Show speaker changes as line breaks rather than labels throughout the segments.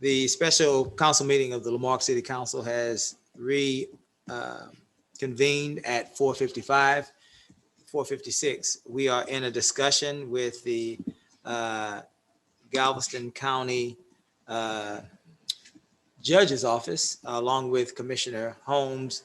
The special council meeting of the Lamarck City Council has reconvened at 4:55, 4:56. We are in a discussion with the uh, Galveston County uh, Judge's Office, along with Commissioner Holmes,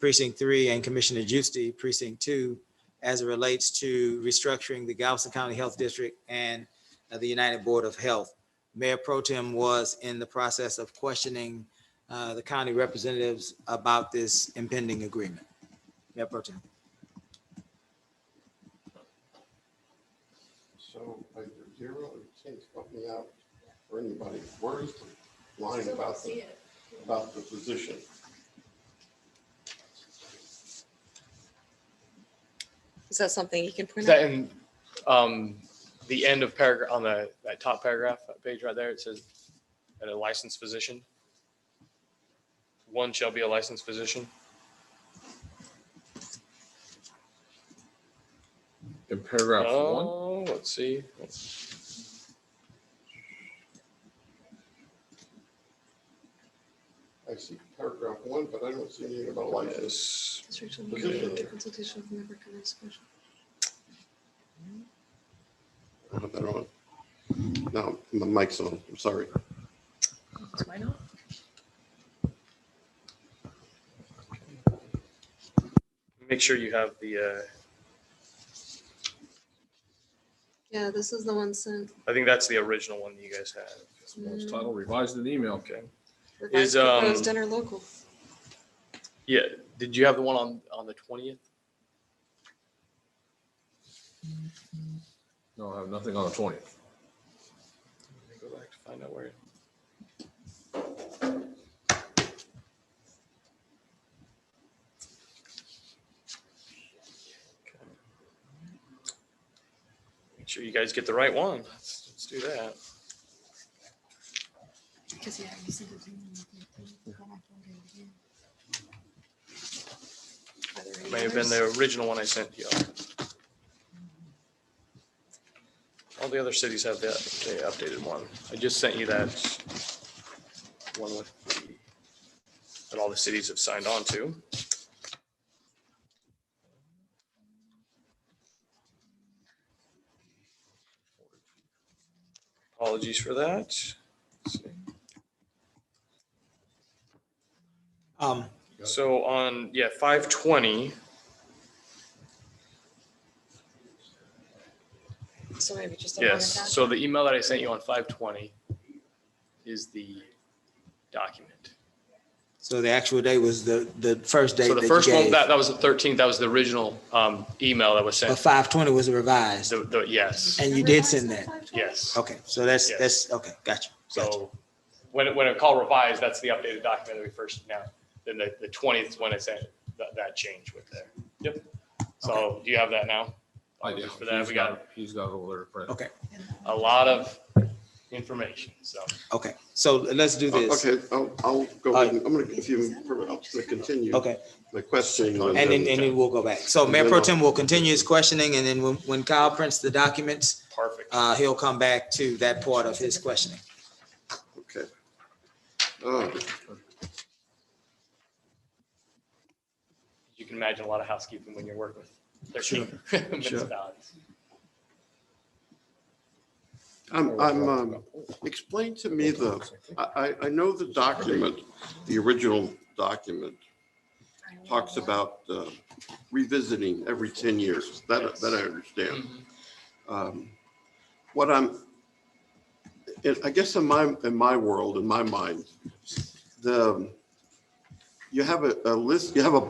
Precinct 3, and Commissioner Juicy, Precinct 2, as it relates to restructuring the Galveston County Health District and uh, the United Board of Health. Mayor Pro Tem was in the process of questioning uh, the county representatives about this impending agreement. Mayor Pro Tem.
So like there's zero, you can't help me out or anybody. Where is the line about the, about the position?
Is that something you can
Is
print
that
out?
in um, the end of paragraph, on the, that top paragraph, that page right there, it says, at a licensed physician? One shall be a licensed physician?
In paragraph one,
Oh, let's see.
I see paragraph one, but I don't see anything about license.
Yes.
Restriction on the director consultation with member kind of special.
I don't know. No, my mic's on. I'm sorry.
Why not?
Make sure you have the, uh,
Yeah, this is the one sent.
uh, I think that's the original one you guys had.
it's titled revised in email.
Okay.
Revised
Is, um,
proposed Dinner local.
Yeah, did you have the one on, on the twentieth?
No, I have nothing on the twentieth.
Go back to find out where. Make sure you guys get the right one. Let's, let's do that.
Because, yeah, you sent it to me. and I thought I found it again. Are there any
May have been
others?
the original one I sent you. All the other cities have that, the updated one. I just sent you that one with the, that all the cities have signed on to. Apologies for that.
Um,
So on, yeah, five twenty,
So maybe just. a minor
Yes, so the email that I sent you on five twenty is the document.
So the actual day was the, the first day
So
that
the
you
first one,
gave.
that, that was the thirteenth, that was the original, um, email that was
But
sent.
five twenty was revised.
So, the, yes,
document.
And you did
Revised
send
on
that?
520?
yes.
Okay, so that's,
Yes.
that's, okay, gotcha. gotcha.
So when, it- when I call revised, that's the updated document that we first now, then the, the twentieth is when I sent that, that change with there. Yep. So do you have that now?
I do.
Oh, For that, we got
He's got it over there. printed.
Okay,
a lot of information, so.
okay. So let's do this.
Okay, I'll, I'll go ahead. and- I'm gonna, if you, I'm gonna continue.
Uh, Okay,
The questioning. on
and then,
the-
and then we'll go back. So Mayor Pro Tem will continue his questioning and then when, when Kyle prints the documents,
Perfect.
uh, he'll come back to that part of his questioning.
Okay. Uh,
You can imagine a lot of housekeeping when you're working with thirteen municipalities.
I'm, I'm, um, explain to me the, I, I, I know the document, the original document talks about uh, revisiting every 10 years. That, that I understand. Um, What I'm, it- I guess in my, in my world, in my mind, the, you have a a list, you have a